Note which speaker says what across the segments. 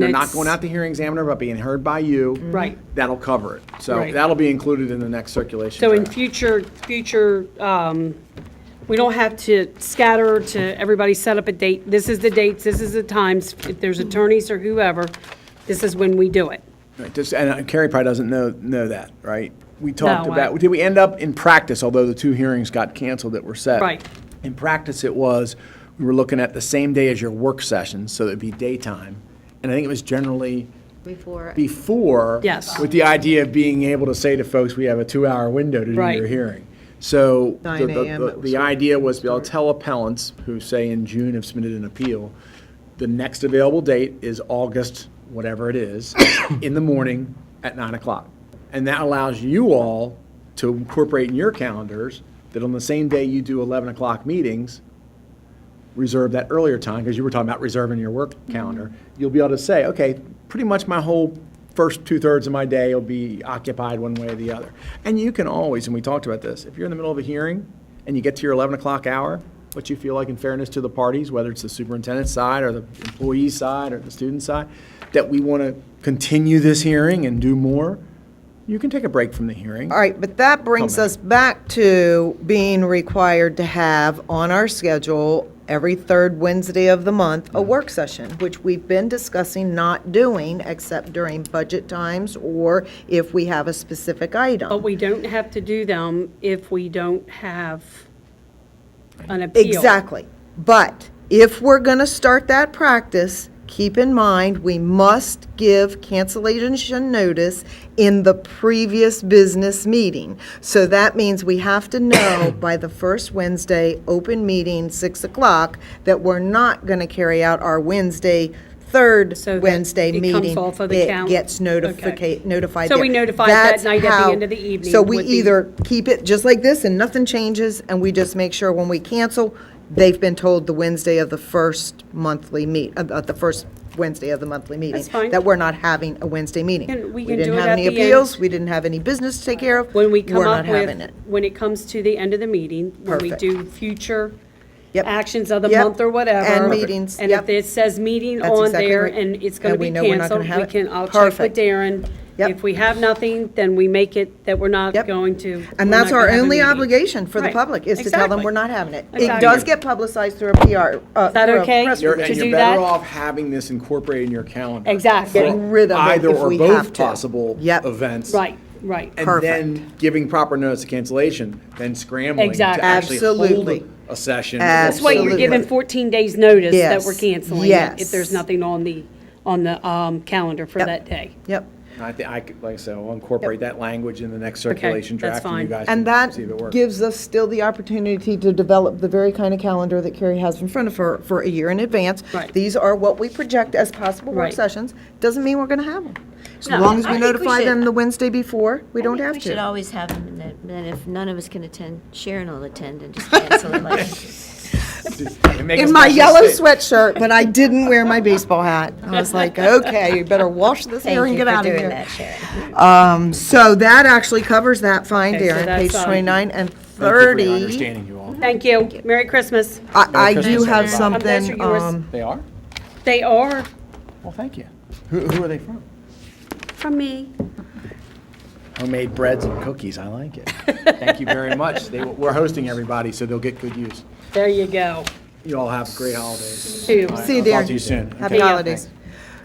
Speaker 1: They're not
Speaker 2: Next- Mm-hmm.
Speaker 1: going out to hearing examiner, but being heard by you.
Speaker 2: Right.
Speaker 1: That'll cover it. So
Speaker 2: Right.
Speaker 1: that'll be included in the next circulation.
Speaker 2: So in
Speaker 1: draft.
Speaker 2: future, future, um, we don't have to scatter to everybody set up a date. This is the dates, this is the times, if there's attorneys or whoever, this is when we do it.
Speaker 1: Right, just- And uh, Carrie probably doesn't know, know that, right? We talked
Speaker 2: No, I-
Speaker 1: about, did we end up in practice, although the two hearings got canceled that were set?
Speaker 2: Right.
Speaker 1: In practice, it was, we were looking at the same day as your work session, so it'd be daytime. And I think it was generally
Speaker 3: Before,
Speaker 1: before.
Speaker 2: Yes.
Speaker 1: With the idea of being able to say to folks, we have a two-hour window to do
Speaker 2: Right.
Speaker 1: your hearing. So the-
Speaker 4: 9
Speaker 1: the-
Speaker 4: a.m.
Speaker 1: the-
Speaker 4: it was
Speaker 1: The idea was, I'll tell appellants who say in June have submitted an appeal, the next available date is August, whatever it is, in the morning at 9 o'clock. And that allows you all to incorporate in your calendars that on the same day you do 11 o'clock meetings, reserve that earlier time, because you were talking about reserving your work calendar, you'll be able to say, okay, pretty much my whole first two-thirds of my day will be occupied one way or the other. And you can always, and we talked about this, if you're in the middle of a hearing and you get to your 11 o'clock hour, what you feel like in fairness to the parties, whether it's the superintendent's side or the employee's side or the student's side, that we want to continue this hearing and do more, you can take a break from the hearing.
Speaker 4: All right, but that brings
Speaker 1: Come back.
Speaker 4: us back to being required to have on our schedule every third Wednesday of the month, a work session, which we've been discussing not doing except during budget times or if we have a specific
Speaker 2: But
Speaker 4: item.
Speaker 2: we don't have to do them if we don't have an appeal.
Speaker 4: Exactly. But if we're going to start that practice, keep in mind, we must give cancellation notice in the previous business meeting. So that means we have to know by the first Wednesday, open meeting, 6 o'clock, that we're not going to carry out our Wednesday, third
Speaker 2: So that
Speaker 4: Wednesday
Speaker 2: it
Speaker 4: meeting.
Speaker 2: comes off of the count?
Speaker 4: It gets
Speaker 2: Okay.
Speaker 4: notifica- notified.
Speaker 2: So we
Speaker 4: there.
Speaker 2: notify that
Speaker 4: That's
Speaker 2: night at the
Speaker 4: how-
Speaker 2: end of the evening
Speaker 4: So we
Speaker 2: would be-
Speaker 4: either keep it just like this and nothing changes, and we just make sure when we cancel, they've been told the Wednesday of the first monthly meet, of of the first Wednesday of the monthly meeting.
Speaker 2: That's fine.
Speaker 4: That we're not having a Wednesday meeting.
Speaker 2: Can- we can do
Speaker 4: didn't
Speaker 2: it
Speaker 4: have
Speaker 2: at
Speaker 4: any
Speaker 2: the end.
Speaker 4: appeals, we didn't have any business to take care of.
Speaker 2: When we come
Speaker 4: We're
Speaker 2: up
Speaker 4: not having
Speaker 2: with,
Speaker 4: it.
Speaker 2: when it comes to the end of the meeting, when we
Speaker 4: Perfect.
Speaker 2: do future
Speaker 4: Yep.
Speaker 2: actions of the
Speaker 4: Yep.
Speaker 2: month or whatever.
Speaker 4: And meetings,
Speaker 2: And if
Speaker 4: yep.
Speaker 2: it says meeting
Speaker 4: That's
Speaker 2: on
Speaker 4: exactly
Speaker 2: there
Speaker 4: right.
Speaker 2: and it's going to
Speaker 4: And we
Speaker 2: be
Speaker 4: know we're not
Speaker 2: canceled,
Speaker 4: gonna have
Speaker 2: we
Speaker 4: it.
Speaker 2: can, I'll check with
Speaker 4: Perfect.
Speaker 2: Darren.
Speaker 4: Yep.
Speaker 2: If we have nothing, then we make it that we're not
Speaker 4: Yep.
Speaker 2: going to.
Speaker 4: And
Speaker 2: we're not
Speaker 4: that's
Speaker 2: gonna
Speaker 4: our
Speaker 2: have a
Speaker 4: only
Speaker 2: meeting.
Speaker 4: obligation for the
Speaker 2: Right.
Speaker 4: public, is to tell them
Speaker 2: Exactly.
Speaker 4: we're not having it. It
Speaker 2: Exactly.
Speaker 4: does get publicized through a PR, uh,
Speaker 2: Is that
Speaker 4: through a
Speaker 2: okay?
Speaker 4: press
Speaker 1: You're-
Speaker 2: to
Speaker 1: And you're
Speaker 2: do
Speaker 1: better
Speaker 2: that?
Speaker 1: off having this incorporated in your calendar.
Speaker 2: Exactly.
Speaker 1: for
Speaker 4: Getting rid of it if we
Speaker 1: Either or
Speaker 4: have
Speaker 1: both
Speaker 4: to.
Speaker 1: possible
Speaker 4: Yep.
Speaker 1: events.
Speaker 2: Right, right.
Speaker 1: And then giving proper notice of cancellation, then scrambling to
Speaker 2: Exactly.
Speaker 1: actually hold
Speaker 4: Absolutely.
Speaker 1: a session.
Speaker 2: That's why you're
Speaker 4: Absolutely.
Speaker 2: given 14 days notice that we're
Speaker 4: Yes.
Speaker 2: canceling it if
Speaker 4: Yes.
Speaker 2: there's nothing on the, on the um, calendar for
Speaker 4: Yep.
Speaker 2: that day.
Speaker 4: Yep.
Speaker 1: I think, I could, like I said, I'll incorporate that language in the next circulation
Speaker 2: that's
Speaker 1: draft and you
Speaker 2: fine.
Speaker 1: guys
Speaker 4: And
Speaker 1: can
Speaker 4: that
Speaker 1: see if it works.
Speaker 4: gives us still the opportunity to develop the very kind of calendar that Carrie has in front of her for a year in advance.
Speaker 2: Right.
Speaker 4: These are what we project as possible work
Speaker 2: Right.
Speaker 4: sessions. Doesn't mean we're going to have them. As
Speaker 2: No,
Speaker 4: long as
Speaker 3: I
Speaker 4: we
Speaker 3: think we
Speaker 4: notify them
Speaker 3: should-
Speaker 4: the Wednesday before, we don't have
Speaker 3: we should
Speaker 4: to.
Speaker 3: always have them, and then- then if none of us can attend, Sharon will attend and just cancel it like.
Speaker 1: And make a
Speaker 4: In my
Speaker 1: special
Speaker 4: yellow
Speaker 1: state-
Speaker 4: sweatshirt, but I didn't wear my baseball hat. I was like, okay, you better wash this hair
Speaker 3: Thank
Speaker 4: and
Speaker 3: you
Speaker 4: get
Speaker 3: for
Speaker 4: out of
Speaker 3: doing
Speaker 4: here.
Speaker 3: that, Sharon.
Speaker 4: So that actually covers that fine,
Speaker 2: Okay, so
Speaker 4: Darren,
Speaker 2: that's,
Speaker 4: page
Speaker 2: um,
Speaker 4: 29 and
Speaker 1: Thank you for
Speaker 4: 30.
Speaker 1: your understanding, you all.
Speaker 2: Thank you. Merry Christmas.
Speaker 4: I, I
Speaker 1: Merry
Speaker 4: do
Speaker 1: Christmas,
Speaker 4: have
Speaker 1: everybody.
Speaker 2: Um, those are
Speaker 4: something,
Speaker 2: yours.
Speaker 4: um,
Speaker 1: They are?
Speaker 2: They are
Speaker 1: Well, thank you. Who, who are they from?
Speaker 2: from me.
Speaker 1: Homemade breads and cookies, I like it. Thank you very much. They, we're hosting everybody, so they'll get good use.
Speaker 2: There you go.
Speaker 1: You all have great holidays.
Speaker 2: Two.
Speaker 4: See you,
Speaker 1: I'll talk
Speaker 4: Darren.
Speaker 1: to you soon.
Speaker 4: Happy
Speaker 1: Okay.
Speaker 4: holidays.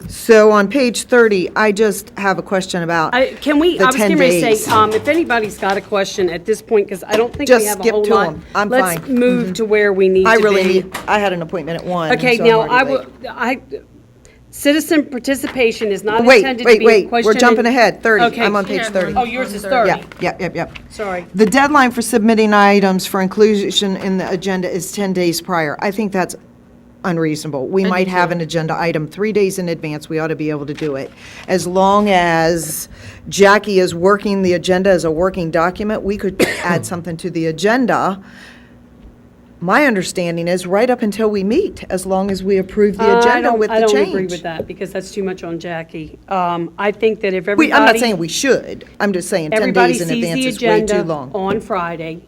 Speaker 4: So on page 30, I just have a question about
Speaker 2: I- Can we,
Speaker 4: the
Speaker 2: I was
Speaker 4: 10
Speaker 2: getting ready to
Speaker 4: days.
Speaker 2: say, um, if anybody's got a question at this point, because I don't think we
Speaker 4: Just
Speaker 2: have a
Speaker 4: skip
Speaker 2: whole
Speaker 4: to
Speaker 2: lot.
Speaker 4: 'em. I'm
Speaker 2: Let's
Speaker 4: fine. Mm-hmm.
Speaker 2: move to where we need to be.
Speaker 4: I really need, I had an appointment at 1.
Speaker 2: Okay,
Speaker 4: so I'm
Speaker 2: now, I
Speaker 4: already
Speaker 2: will,
Speaker 4: late.
Speaker 2: I, citizen participation is not
Speaker 4: Wait,
Speaker 2: intended to
Speaker 4: wait,
Speaker 2: be a
Speaker 4: wait,
Speaker 2: question.
Speaker 4: we're jumping
Speaker 2: and-
Speaker 4: ahead, 30,
Speaker 2: Okay.
Speaker 4: I'm on page 30.
Speaker 2: Oh, yours is 30.
Speaker 4: Yep, yep, yep, yep.
Speaker 2: Sorry.
Speaker 4: The deadline for submitting items for inclusion in the agenda is 10 days prior. I think that's unreasonable. We might have an agenda item three days in advance, we ought to be able to do it. As long as Jackie is working the agenda as a working document, we could add something to the agenda. My understanding is right up until we meet, as long as we approve the
Speaker 2: Uh, I
Speaker 4: agenda
Speaker 2: don't-
Speaker 4: with the
Speaker 2: I
Speaker 4: change.
Speaker 2: don't agree with that, because that's too much on Jackie. Um, I think that if everybody.
Speaker 4: We, I'm not saying we should, I'm just saying 10 days in advance is way too
Speaker 2: Everybody sees the agenda
Speaker 4: long.
Speaker 2: on Friday.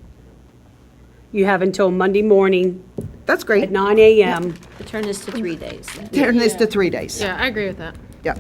Speaker 2: You have until Monday morning
Speaker 4: That's great.
Speaker 2: at 9 AM.
Speaker 3: Turn this to three days then.
Speaker 4: Turn this to three days.
Speaker 5: Yeah, I agree with that.